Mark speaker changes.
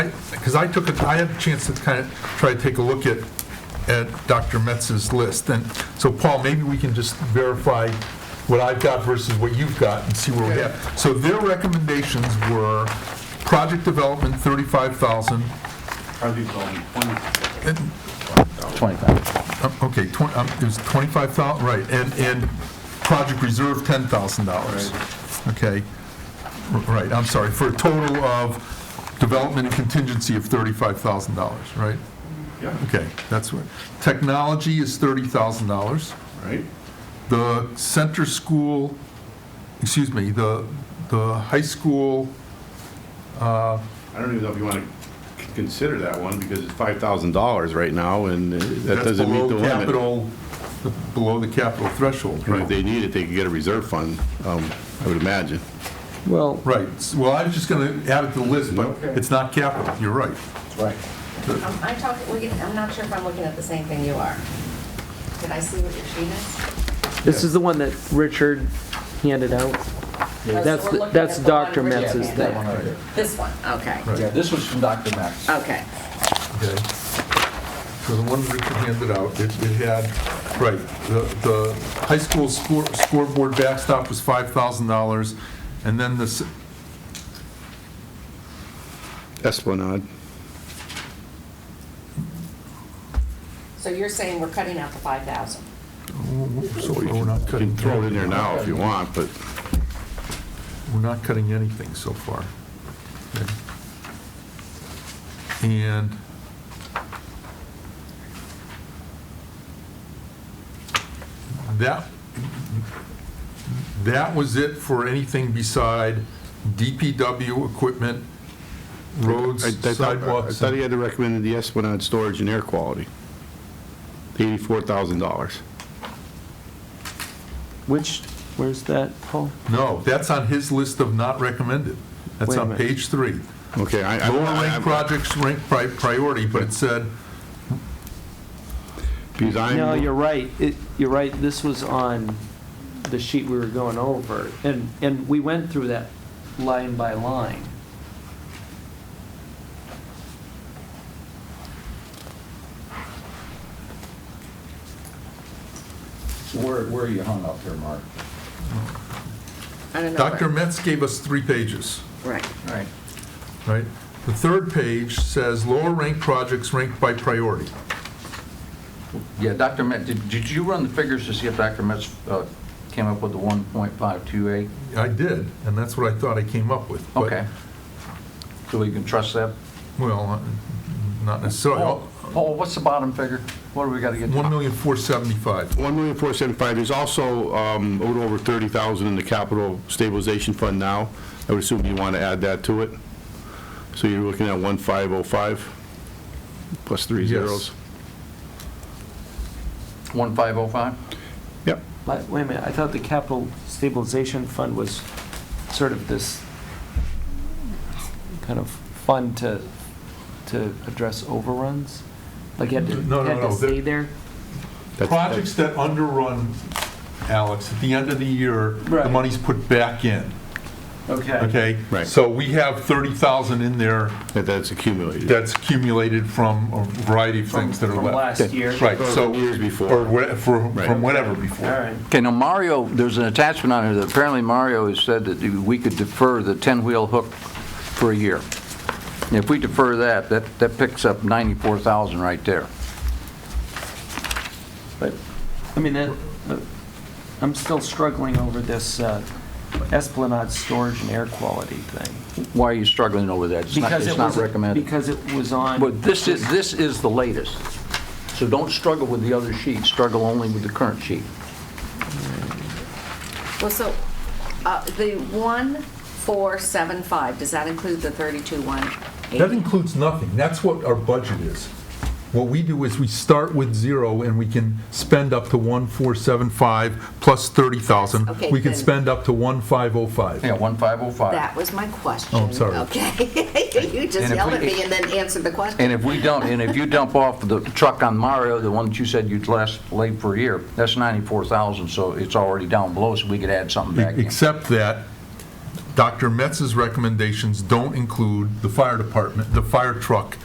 Speaker 1: Because I took, a- I had a chance to kind of try to take a look at, at Dr. Metz's list, and so Paul, maybe we can just verify what I've got versus what you've got and see where we have. So their recommendations were project development, 35,000,
Speaker 2: Probably only twenty.
Speaker 1: and-
Speaker 3: 25.
Speaker 1: um, okay, 20, um, it was 25,000, right, and, and project reserve, $10,000. Okay, R- right, I'm sorry, for a total of development and contingency of $35,000, right?
Speaker 2: Yeah,
Speaker 1: Okay, that's what, technology is thirty thousand dollars.
Speaker 2: right?
Speaker 1: The center school, excuse me, the, the high school,
Speaker 2: I don't even know if you want to consider that one because it's five thousand dollars right now and uh, that
Speaker 1: that's
Speaker 2: doesn't meet
Speaker 1: below
Speaker 2: the limit.
Speaker 1: capital, below the capital threshold,
Speaker 2: And If
Speaker 1: right?
Speaker 2: they need it, they could get a reserve fund, um, I would imagine.
Speaker 3: Well,
Speaker 1: Right, S- well, I was just gonna add it to the list, but it's not capital, you're right.
Speaker 3: right.
Speaker 4: I'm I'm talking, we can- I'm not sure if I'm looking at the same thing you are. Did I see what your sheet is?
Speaker 3: This is the one that Richard handed out. That's,
Speaker 4: So we're
Speaker 3: the-
Speaker 4: looking
Speaker 3: that's
Speaker 4: at the one
Speaker 3: Dr.
Speaker 4: Richard
Speaker 3: Metz's
Speaker 4: handed
Speaker 3: thing.
Speaker 4: out. This one, okay,
Speaker 1: Right.
Speaker 5: Yeah, this was from Dr. Max.
Speaker 4: okay.
Speaker 1: Okay. So the one Richard handed out, it it had, right, the, the high school score scoreboard backstop was $5,000, and then the s-
Speaker 2: Esplanade.
Speaker 4: So you're saying we're cutting out the 5,000?
Speaker 1: So we're not
Speaker 2: You can
Speaker 1: cutting,
Speaker 2: throw it in there now if you want, but
Speaker 1: we're not cutting anything so far. Okay. And, that, that was it for anything beside DPW equipment, roads,
Speaker 2: I I thought I
Speaker 1: sidewalks.
Speaker 2: thought he had recommended the Esplanade storage and air quality. Eighty-four thousand dollars.
Speaker 3: Which, where's that, Paul?
Speaker 1: No, that's on his list of not recommended. That's
Speaker 3: Wait a
Speaker 1: on
Speaker 3: minute.
Speaker 1: page three.
Speaker 2: Okay, I. I-
Speaker 1: Lower
Speaker 2: I-
Speaker 1: ranked projects ranked pri- priority, but it said,
Speaker 2: Because I'm.
Speaker 3: No, you're right. It, you're right. This was on the sheet we were going over. And, and we went through that line by line.
Speaker 5: So where, where are you hung up there, Mark?
Speaker 4: I don't know.
Speaker 1: Dr. Metz gave us three pages,
Speaker 4: Right.
Speaker 5: Right.
Speaker 1: right? The third page says lower ranked projects ranked by priority.
Speaker 5: Yeah, Dr. Metz, did, did you run the figures to see if Dr. Metz uh, came up with the 1.528?
Speaker 1: I did, and that's what I thought I came up with. but-
Speaker 5: Okay. So we can trust that?
Speaker 1: Well, uh, not necessarily.
Speaker 5: Paul, Paul, what's the bottom figure? What do we got to get? to?
Speaker 1: One million four seventy-five.
Speaker 2: One million four seventy-five, there's also um, a little over thirty thousand in the capital stabilization fund now. I would assume you want to add that to it. So you're looking at one five oh five, plus three
Speaker 1: Yes.
Speaker 2: zeros.
Speaker 5: 1.505?
Speaker 2: Yep,
Speaker 3: But Wait a minute, I thought the capital stabilization fund was sort of this kind of fund to, to address overruns? Like you had to,
Speaker 1: No, no,
Speaker 3: had to
Speaker 1: no,
Speaker 3: stay
Speaker 1: the-
Speaker 3: there?
Speaker 2: That's-
Speaker 1: Projects that underrun, Alex, at the end of the year, the
Speaker 3: Right.
Speaker 1: money's put back in,
Speaker 3: Okay.
Speaker 1: okay?
Speaker 2: Right.
Speaker 1: So we have thirty thousand in there
Speaker 2: that- that's accumulated.
Speaker 1: that's accumulated from a variety of things that are
Speaker 3: From
Speaker 1: left.
Speaker 3: last year?
Speaker 1: Right, so.
Speaker 2: From years before.
Speaker 1: Or whate- for-
Speaker 2: Right.
Speaker 1: from whatever before.
Speaker 3: All right.
Speaker 5: Okay, now Mario, there's an attachment on here that apparently Mario has said that we could defer the 10-wheel hook for a year. And If we defer that, that, that picks up 94,000 right there.
Speaker 3: But, I mean, that, uh, I'm still struggling over this uh, Esplanade storage and air quality thing.
Speaker 5: Why are you struggling over that? It's not,
Speaker 3: Because
Speaker 5: it's
Speaker 3: it
Speaker 5: not
Speaker 3: was-
Speaker 5: recommended.
Speaker 3: Because it was on.
Speaker 5: But this is, this is the latest. So don't struggle with the other sheet, struggle only with the current sheet.
Speaker 4: Well, so uh, the 1,475, does that include the 32,180?
Speaker 1: That includes nothing. That's what our budget is. What we do is we start with zero and we can spend up to 1,475 plus 30,000.
Speaker 4: Okay,
Speaker 1: We can
Speaker 4: then-
Speaker 1: spend up to 1,505.
Speaker 5: Yeah, 1505.
Speaker 4: That was my question.
Speaker 1: Oh, I'm sorry.
Speaker 4: Okay. You
Speaker 5: And
Speaker 4: just
Speaker 5: if
Speaker 4: yelled
Speaker 5: we-
Speaker 4: at me and then answered the question.
Speaker 5: And if we dump, and if you dump off the truck on Mario, the one that you said you'd last late for a year, that's 94,000, so it's already down below, so we could add something back in.
Speaker 1: Except that Dr. Metz's recommendations don't include the fire department, the fire truck